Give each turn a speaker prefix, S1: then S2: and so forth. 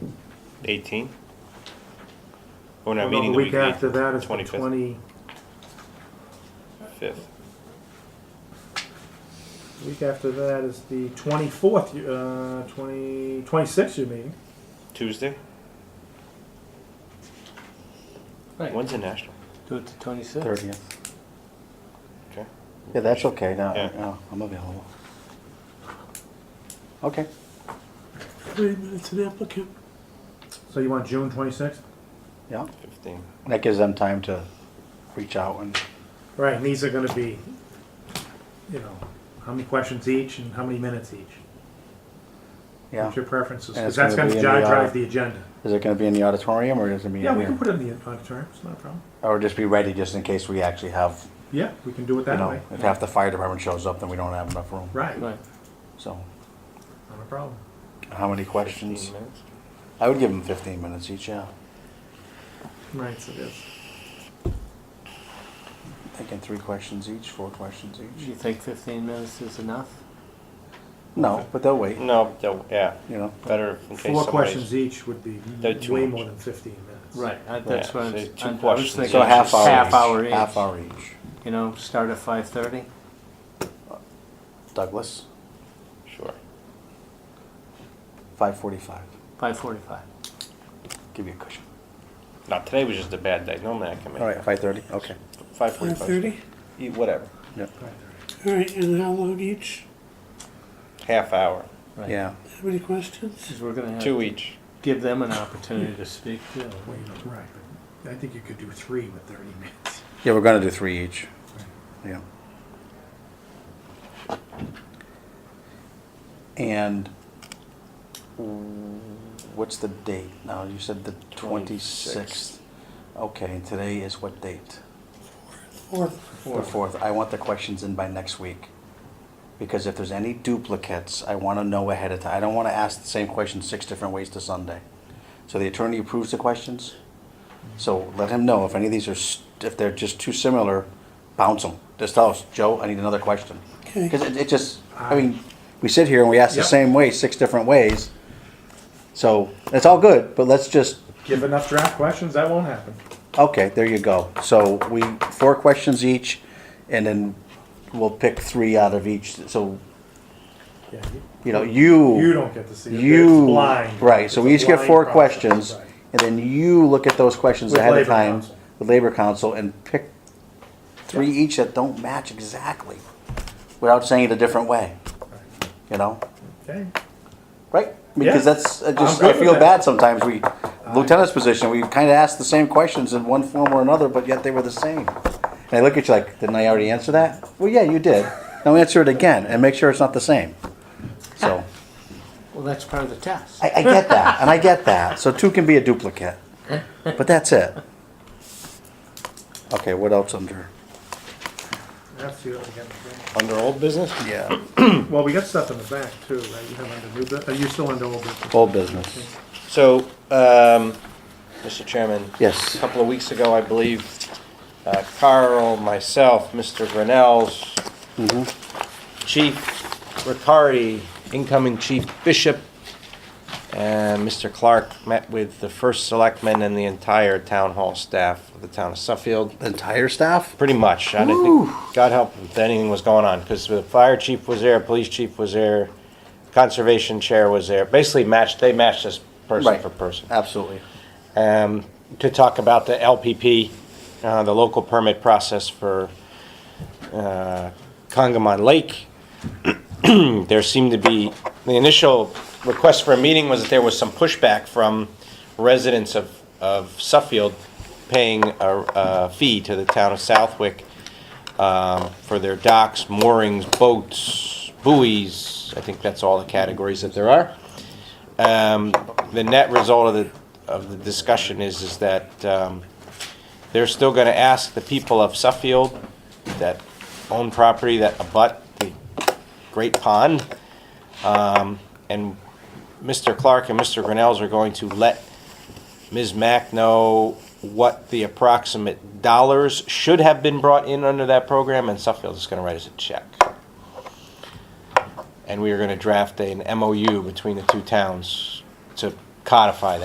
S1: 18? We're not
S2: Well, no,
S1: meeting the
S2: the week
S1: week
S2: after that is the
S1: 25th.
S2: twenty, week after that is the twenty-fourth, uh, twenty, twenty-sixth you're meeting.
S1: Tuesday?
S3: Right.
S1: When's the national?
S3: Do it to 26.
S4: Thirtieth.
S1: Okay.
S4: Yeah, that's okay. Now,
S1: Yeah.
S4: now I'm available. Okay.
S3: Three minutes an applicant.
S2: So you want June twenty-sixth?
S4: Yeah.
S1: 15.
S4: That gives them time to reach out and
S2: Right, and these are gonna be, you know, how many questions each and how many minutes each?
S4: yeah.
S2: What's your preferences?
S4: And
S2: Because
S4: it's
S2: that's
S4: gonna
S2: gonna
S4: be in the,
S2: drive,
S4: uh,
S2: drive the agenda.
S4: Is it going to be in the auditorium or is it going to be
S2: Yeah,
S4: in
S2: we can
S4: here?
S2: put it in the auditorium, it's not a problem.
S4: or just be ready just in case we actually have,
S2: Yeah, we can do it
S4: you
S2: that
S4: know,
S2: way.
S4: if half the fire department shows up, then we don't have enough room.
S2: Right, not
S3: Right.
S4: So,
S2: a problem.
S4: how many
S1: 15
S4: questions?
S1: minutes.
S4: I would give them 15 minutes each. Yeah.
S2: Right, so that's,
S4: Thinking three questions each, four questions
S3: Do
S4: each.
S3: you think 15 minutes is enough?
S4: No, but they'll wait.
S1: No, they'll- yeah,
S4: You know.
S1: better in case
S2: four
S1: somebody's-
S2: questions each would be
S1: They're too
S2: way
S1: much.
S2: more than fifteen minutes.
S3: I, that's
S1: Yeah,
S3: what I'm,
S1: so two
S3: I'm, I was
S1: questions.
S3: thinking.
S4: So a half hour.
S3: Half
S4: each.
S3: hour each.
S4: Half hour each.
S3: You know, start at 5.30.
S4: Douglas,
S1: Sure.
S4: 5:45.
S3: 5.45.
S4: Give you a cushion.
S1: Now, today was just a bad day. Normally I can make
S4: All right, 5:30. Okay.
S1: 5:45.
S5: 5:30?
S1: Yeah, E, Whatever.
S2: Right.
S5: All right, and how long each?
S1: Half hour.
S3: Right.
S4: Yeah.
S5: How many questions?
S3: Because we're going to have
S1: Two each.
S3: give them an opportunity to speak too.
S2: Well, you know, right, but I think you could do three with thirty minutes.
S4: Yeah, we're gonna do three each. Yeah. And what's the date now? You said the twenty-sixth. Okay, and today is what date?
S5: Fourth.
S4: The fourth. I want the questions in by next week. Because if there's any duplicates, I wanna know ahead of time. I don't wanna ask the same question six different ways to Sunday. So the attorney approves the questions. So let him know if any of these are, s- if they're just too similar, bounce them. Just tell us, Joe, I need another question.
S5: Okay.
S4: Because it, it just, I mean, we sit here and we ask the
S2: Yep.
S4: same way, six different ways. So it's all good, but let's just,
S2: Give enough draft questions, that won't happen.
S4: okay, there you go. So we, four questions each, and then we'll pick three out of each. So,
S2: Yeah, you-
S4: you know, you.
S2: You don't get to see it.
S4: You.
S2: It's blind.
S4: Right, so
S2: It's
S4: we
S2: a
S4: each get
S2: blind
S4: four
S2: process.
S4: questions,
S2: Right.
S4: and then you look at those questions
S2: With
S4: ahead of
S2: Labor
S4: time
S2: Council.
S4: with Labor Council and pick three each that don't match exactly, without saying it a different way, you know?
S2: Okay,
S4: Right? Because
S2: Yeah.
S4: that's, I just,
S2: I'm
S4: I
S2: good
S4: feel
S2: with that.
S4: bad sometimes, we, lieutenant's position, we kinda ask the same questions in one form or another, but yet they were the same. And I look at you like, didn't I already answer that? Well, yeah, you did. Now answer it again and make sure it's not the same. So,
S3: Well, that's part of the test.
S4: I, I get that, and I get that, so two can be a duplicate, but that's it. Okay, what else under,
S2: that's the other thing.
S1: Under old business?
S4: yeah,
S2: Well, we got stuff in the back too, right? You have under new, bu- are you still under old business?
S4: old business,
S1: So, um, Mr. Chairman.
S4: Yes.
S1: A couple of weeks ago, I believe, uh, Carl, myself, Mr. Grinnell's Chief Riccardi, incoming Chief Bishop, and Mr. Clark met with the first selectmen and the entire town hall staff of the town of Suffield.
S4: entire staff?
S1: Pretty much. I didn't think, God help if anything was going on, because the fire chief was there, police chief was there, conservation chair was there. Basically matched, they matched us person
S4: Right.
S1: for person.
S4: Absolutely.
S1: Um, to talk about the LPP, uh, the local permit process for, uh, Congamon Lake. There seemed to be, the initial request for a meeting was that there was some pushback from residents of, of Suffield paying a, a fee to the town of Southwick um, for their docks, moorings, boats, buoys. I think that's all the categories that there are. Um, the net result of the, of the discussion is, is that, um, they're still gonna ask the people of Suffield that own property that abut the Great Pond. Um, and Mr. Clark and Mr. Grinnell's are going to let Ms. Mack know what the approximate dollars should have been brought in under that program, and Suffield is gonna write us a check. And we are gonna draft an MOU between the two towns to codify that.